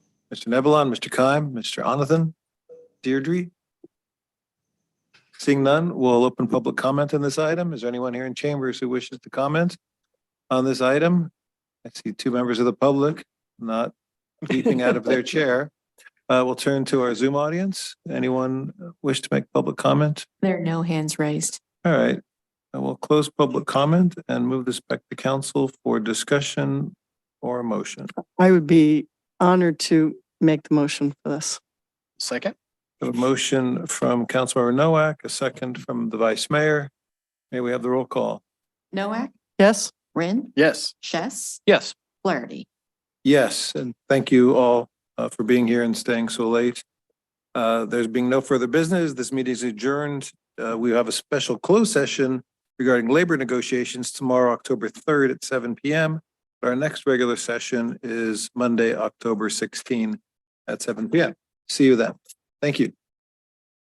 Mr. Nebelon, Mr. Kime, Mr. Onathen, Deirdre? Seeing none, we'll open public comment on this item. Is there anyone here in chambers who wishes to comment on this item? I see two members of the public not leaping out of their chair. Uh, we'll turn to our Zoom audience. Anyone wish to make public comment? There are no hands raised. All right, I will close public comment and move this back to council for discussion or a motion. I would be honored to make the motion for this. Second? A motion from Councilmember Nowak, a second from the Vice Mayor. May we have the roll call? Noack, Yes? Rin, Yes. Chess, Yes. Flaherty. Yes, and thank you all uh, for being here and staying so late. Uh, There's being no further business. This meeting is adjourned. Uh, We have a special closed session regarding labor negotiations tomorrow, October 3rd at seven PM. Our next regular session is Monday, October 16 at seven PM. See you then. Thank you.